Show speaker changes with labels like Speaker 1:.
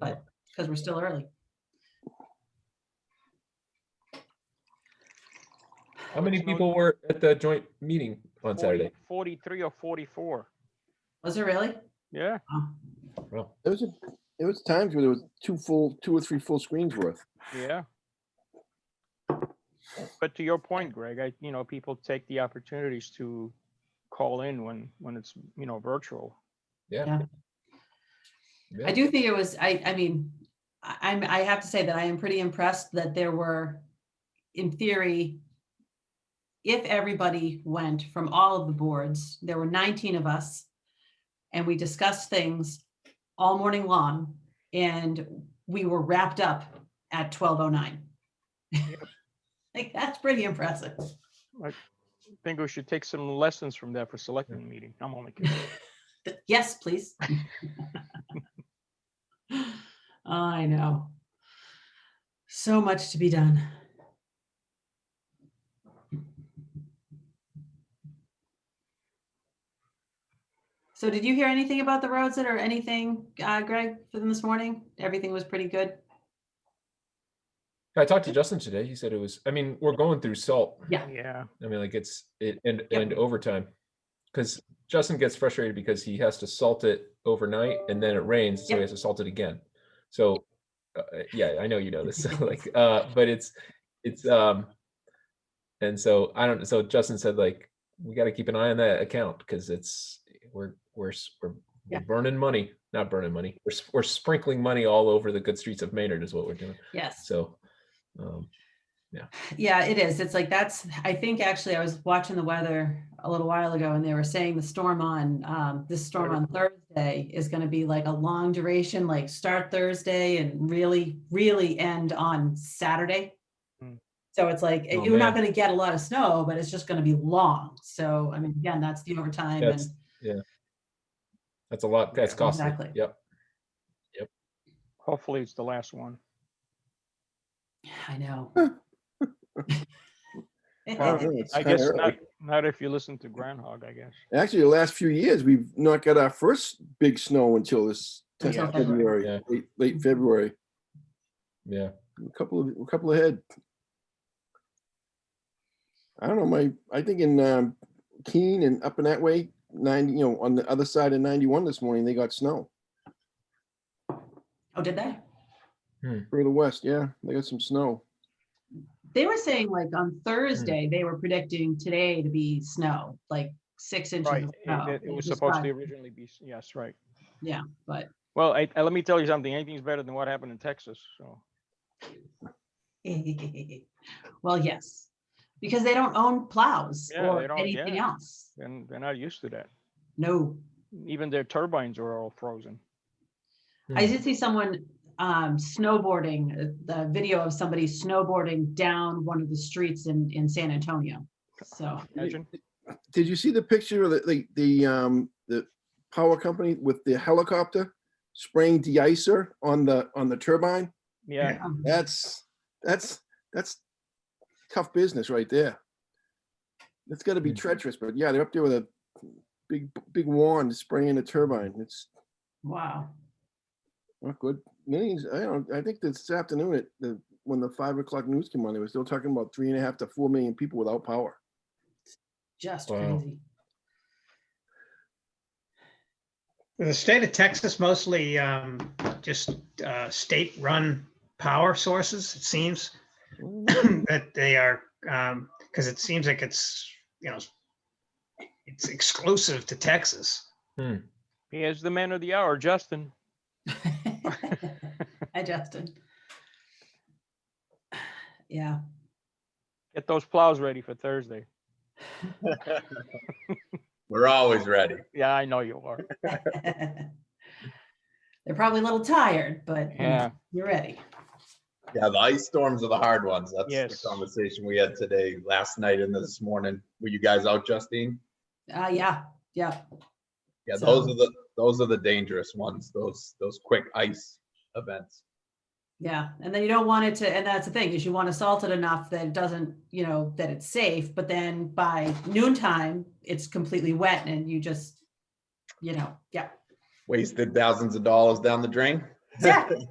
Speaker 1: because we're still early.
Speaker 2: How many
Speaker 3: So-
Speaker 2: people were at the joint meeting on
Speaker 3: 40
Speaker 2: Saturday?
Speaker 3: Forty-three or forty-four.
Speaker 1: Was it really?
Speaker 3: Yeah,
Speaker 1: Oh,
Speaker 2: Well,
Speaker 4: There was, a there was times where there was two full, two or three full screens worth.
Speaker 3: yeah. But to your point, Greg, I, you know, people take the opportunities to call in when, when it's, you know, virtual.
Speaker 2: yeah.
Speaker 1: Yeah. I
Speaker 2: Yeah.
Speaker 1: do think it was, I, I mean, I, I'm, I have to say that I am pretty impressed that there were, in theory, if everybody went from all of the boards, there were 19 of us, and we discussed things all morning long, and we were wrapped up at 12:09. Like, that's pretty impressive.
Speaker 3: Think we should take some lessons from that for selecting meeting. I'm only kidding.
Speaker 1: Yes, please. I know. So much to be done. So did you hear anything about the roads that or anything, uh, Greg, for them this morning? Everything was pretty good?
Speaker 2: I talked to Justin today. He said it was, I mean, we're going through salt.
Speaker 3: Yeah,
Speaker 2: I mean, like it's, it, and,
Speaker 1: Yep.
Speaker 2: and overtime. Cause Justin gets frustrated because he has to salt it overnight and then it rains, so
Speaker 1: Yep.
Speaker 2: he has to salt it again. So, uh, yeah, I know you know this, like, uh, but it's, it's, um, and so I don't, so Justin said like, we gotta keep an eye on that account, cause it's, we're, we're, s- we're
Speaker 1: Yeah.
Speaker 2: we're burning money, not burning money. We're, s- we're sprinkling money all over the good streets of Maynard is what we're doing.
Speaker 1: Yes.
Speaker 2: So, um,
Speaker 1: Yeah, it is. It's like that's, I think actually I was watching the weather a little while ago and they were saying the storm on, um, this storm on Thursday is gonna be like a long duration, like start Thursday and really, really end on Saturday.
Speaker 3: Hmm.
Speaker 1: So it's like,
Speaker 2: Oh,
Speaker 1: you're not
Speaker 2: man.
Speaker 1: gonna get a lot of snow, but it's just gonna be long. So, I mean, again, that's the overtime and,
Speaker 2: That's- That's a lot. That's
Speaker 3: Yeah,
Speaker 2: costly.
Speaker 1: exactly.
Speaker 2: Yep.
Speaker 3: hopefully it's the last one.
Speaker 1: I know.
Speaker 4: I don't know, it's
Speaker 3: I
Speaker 4: kinda
Speaker 3: guess
Speaker 4: early.
Speaker 3: not, not if you listen to Groundhog, I guess.
Speaker 4: Actually, the last few years, we've not got our first big snow until this tenth
Speaker 1: Until
Speaker 4: of
Speaker 1: February.
Speaker 4: February, late, late February,
Speaker 2: Yeah.
Speaker 4: a couple of, a couple ahead. I don't know, my, I think in um, Keene and up in that way, ninety, you know, on the other side of ninety-one this morning, they got snow.
Speaker 1: Oh, did they?
Speaker 4: Further west, yeah, they got some snow.
Speaker 1: They were saying like
Speaker 3: Hmm.
Speaker 1: on Thursday, they were predicting today to be snow, like six inches.
Speaker 3: Right,
Speaker 1: of snow.
Speaker 3: it- it it was
Speaker 1: just
Speaker 3: supposed
Speaker 1: got-
Speaker 3: to originally be, s- yes, right.
Speaker 1: Yeah, but
Speaker 3: Well, I, I- let me tell you something, anything's better than what happened in Texas, so.
Speaker 1: well, yes, because they don't own plows
Speaker 3: Yeah, they
Speaker 1: or
Speaker 3: don't,
Speaker 1: anything
Speaker 3: yeah.
Speaker 1: else.
Speaker 3: And they're not used to that.
Speaker 1: No,
Speaker 3: Even their turbines are all frozen.
Speaker 2: Hmm.
Speaker 1: I
Speaker 3: Hmm.
Speaker 1: did see someone um, snowboarding, uh, the video of somebody snowboarding down one of the streets in, in San Antonio. So,
Speaker 3: Imagine,
Speaker 4: Did you see the picture of the, the, the, um, the power company with the helicopter spraying de-icer on the, on the turbine?
Speaker 3: yeah,
Speaker 1: um,
Speaker 4: That's, that's, that's tough business right there. That's gotta be
Speaker 2: Mm.
Speaker 4: treacherous, but yeah, they're up there with a big, big wand spraying a turbine. It's
Speaker 1: wow.
Speaker 4: not good. Millions, I don't, I think this afternoon, at the, when the five o'clock news came on, they were still talking about three and a half to four million people without power.
Speaker 1: Just
Speaker 2: Wow.
Speaker 1: crazy.
Speaker 5: The state of Texas mostly um, just uh, state-run power sources, it seems, that they are, because it seems like it's, you know, it's exclusive to Texas.
Speaker 3: he is the man of the hour, Justin.
Speaker 1: Hi, Justin. Yeah,
Speaker 3: Get those plows ready for Thursday.
Speaker 6: We're always ready.
Speaker 3: Yeah, I know you are.
Speaker 1: they're probably a little tired, but you know,
Speaker 3: Yeah.
Speaker 1: you're ready.
Speaker 6: Yeah, the ice storms are the hard ones. That's
Speaker 3: Yes.
Speaker 6: the conversation we had today, last night and this morning. Were you guys out, Justine?
Speaker 1: Uh, yeah, yeah.
Speaker 6: Yeah, those
Speaker 1: So-
Speaker 6: are the, those are the dangerous ones, those, those quick ice events.
Speaker 1: Yeah, and then you don't want it to, and that's the thing, is you want to salt it enough that it doesn't, you know, that it's safe, but then by noontime, it's completely wet and you just, you know, yeah.
Speaker 6: Wasted thousands of dollars down the drain.
Speaker 1: Exactly.